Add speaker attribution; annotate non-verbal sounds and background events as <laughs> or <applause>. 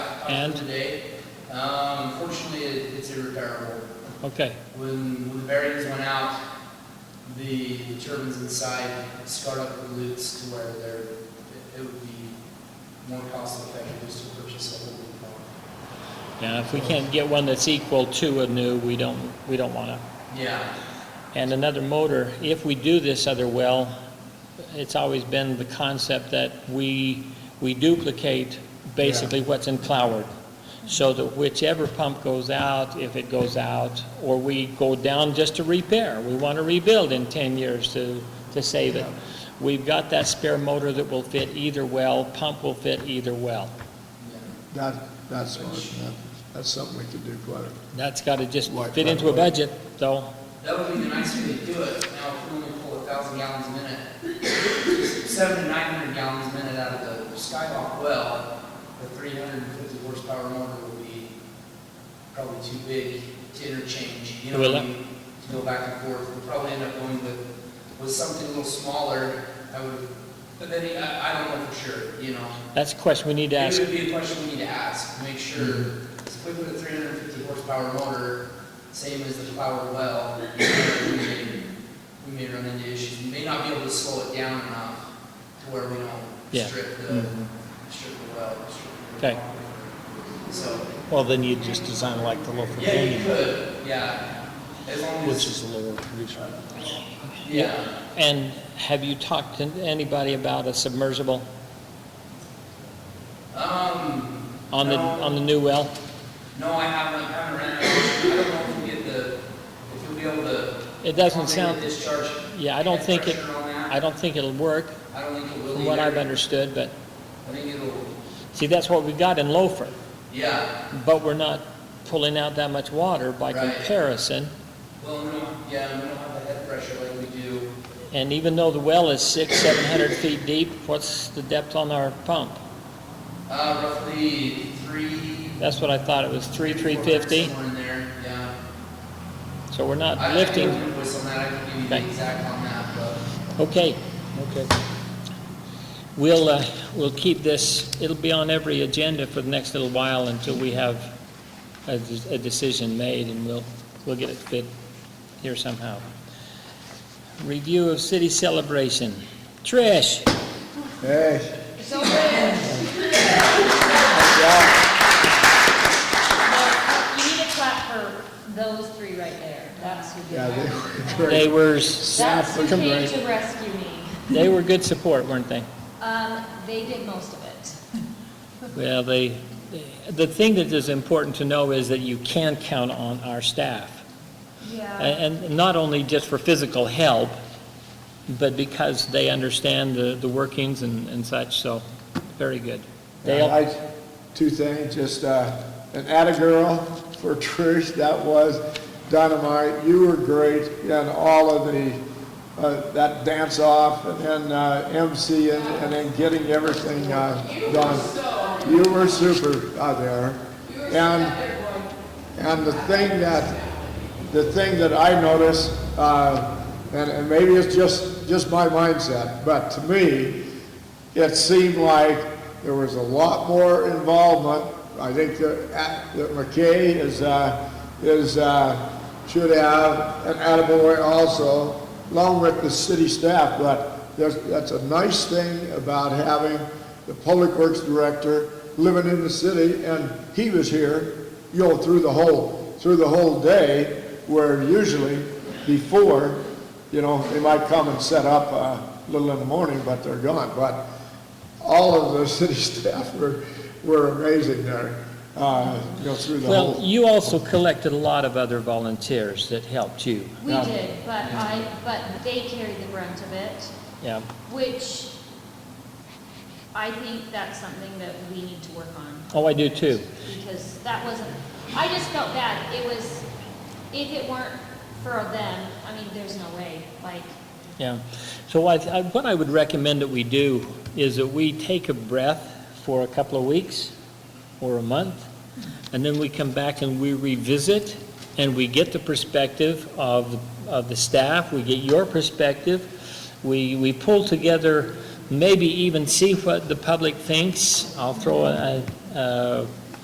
Speaker 1: And?
Speaker 2: Today. Um, Fortunately, it- it's irreparable.
Speaker 1: Okay,
Speaker 2: When, when the bearings went out, the turbines inside scarred up the loops to where they're, it- it would be more cost effective just to purchase a whole new one.
Speaker 1: now if we can't get one that's equal to a new, we don't, we don't want to.
Speaker 2: Yeah,
Speaker 1: And another motor, if we do this other well, it's always been the concept that we, we duplicate basically what's in Cloward. So that whichever pump goes out, if it goes out, or we go down just to repair, we want to rebuild in 10 years to, to save it. We've got that spare motor that will fit either well, pump will fit either well.
Speaker 2: yeah.
Speaker 3: That, that's smart, yeah. That's something we could do quite a,
Speaker 1: That's got to just
Speaker 3: Like
Speaker 1: fit
Speaker 3: that
Speaker 1: into a
Speaker 3: way.
Speaker 1: budget, though.
Speaker 2: That would be the nice way to do it. Now, if we only pull a thousand gallons a minute, seven to nine hundred gallons a minute out of the Skywalk well, the three hundred and fifty horsepower motor would be probably too big to interchange, you know,
Speaker 1: Will
Speaker 2: what I
Speaker 1: it?
Speaker 2: mean? to go back and forth. We'll probably end up going with, with something a little smaller, I would, but then, I, I don't know for sure, you know?
Speaker 1: That's a question we need to
Speaker 2: It
Speaker 1: ask.
Speaker 2: would be a question we need to ask, make sure, it's quick with a three hundred and fifty horsepower motor, same as the power well. We may we may run into issues, we may not be able to slow it down enough to where we
Speaker 1: Yeah.
Speaker 2: don't strip the,
Speaker 4: Mm-hmm.
Speaker 2: strip the well. strip the-
Speaker 1: Okay.
Speaker 2: So,
Speaker 4: Well, then you'd just design like the local
Speaker 2: yeah, you
Speaker 4: canyon,
Speaker 2: could, yeah, as long
Speaker 4: which
Speaker 2: as,
Speaker 4: is a lower producer.
Speaker 2: yeah.
Speaker 1: And have you talked to anybody about a submersible
Speaker 2: Um,
Speaker 1: on the,
Speaker 2: no.
Speaker 1: on the new well?
Speaker 2: No, I haven't, I haven't ran it. I don't know if we get the, if you'll be able to.
Speaker 1: It doesn't
Speaker 2: comprehend
Speaker 1: sound-
Speaker 2: Discharge.
Speaker 1: Yeah, I don't think it,
Speaker 2: pressure on
Speaker 1: I
Speaker 2: that.
Speaker 1: don't think it'll work,
Speaker 2: I don't think it will
Speaker 1: from what I've
Speaker 2: either.
Speaker 1: understood, but,
Speaker 2: I think it'll,
Speaker 1: see, that's what we got in Loafer,
Speaker 2: yeah,
Speaker 1: but we're not pulling out that much water by
Speaker 2: Right.
Speaker 1: comparison.
Speaker 2: well, we don't, yeah, we don't have the head pressure like we do.
Speaker 1: And even though the well is six, seven hundred feet deep, what's the depth on our pump?
Speaker 2: Uh, roughly three.
Speaker 1: That's what I thought, it was three, three fifty,
Speaker 2: Somewhere in there, yeah.
Speaker 1: so we're not
Speaker 2: I- I
Speaker 1: lifting.
Speaker 2: can invoice on that, I can give you the
Speaker 1: Okay.
Speaker 2: exact on that, but,
Speaker 1: Okay,
Speaker 4: Okay.
Speaker 1: We'll, uh, we'll keep this, it'll be on every agenda for the next little while until we have a, a decision made, and we'll, we'll get it fit here somehow. Review of city celebration. Trish,
Speaker 3: hey,
Speaker 5: So good. Well, You need a clap for those three right there. That's who did
Speaker 3: yeah, they
Speaker 5: that.
Speaker 3: were
Speaker 1: they
Speaker 3: great.
Speaker 1: were,
Speaker 5: That's who came
Speaker 1: s-
Speaker 5: to rescue me.
Speaker 1: they were good support, weren't they?
Speaker 5: Um, they did most of it.
Speaker 1: Well, they, the thing that is important to know is that you can count on our staff.
Speaker 5: Yeah.
Speaker 1: And and not only just for physical help, but because they understand the, the workings and, and such, so, very good.
Speaker 3: And
Speaker 1: Dale,
Speaker 3: I- Two things, just, uh, an atta girl for Trish, that was dynamite. You were great in all of the, uh, that dance off and then, uh, MC and, and then getting everything, uh, done. You were super out there. And And the thing that, the thing that I notice, uh, and, and maybe it's just, just my mindset, but to me, it seemed like there was a lot more involvement. I think that, at- that McKay is, uh, is, uh, should have an attaboy also, along with the city staff, but there's, that's a nice thing about having the public works director living in the city, and he was here, you know, through the whole, through the whole day, where usually before, you know, they might come and set up uh, a little in the morning, but they're gone. But all of the <laughs> city staff were, were amazing there, uh, you know, through the
Speaker 1: well,
Speaker 3: whole.
Speaker 1: you also collected a lot of other volunteers that helped you,
Speaker 5: We
Speaker 3: Yeah.
Speaker 5: did, but I, but they carried the brunt of it,
Speaker 1: yeah.
Speaker 5: which I think that's something that we need to work on.
Speaker 1: Oh, I do too.
Speaker 5: because that wasn't, I just felt bad. It was, if it weren't for them, I mean, there's no way, like,
Speaker 1: Yeah. So I, I- what I would recommend that we do is that we take a breath for a couple of weeks or a month, and then we come back and we revisit, and we get the perspective of, of the staff, we get your perspective, we, we pull together, maybe even see what the public thinks. I'll throw a, a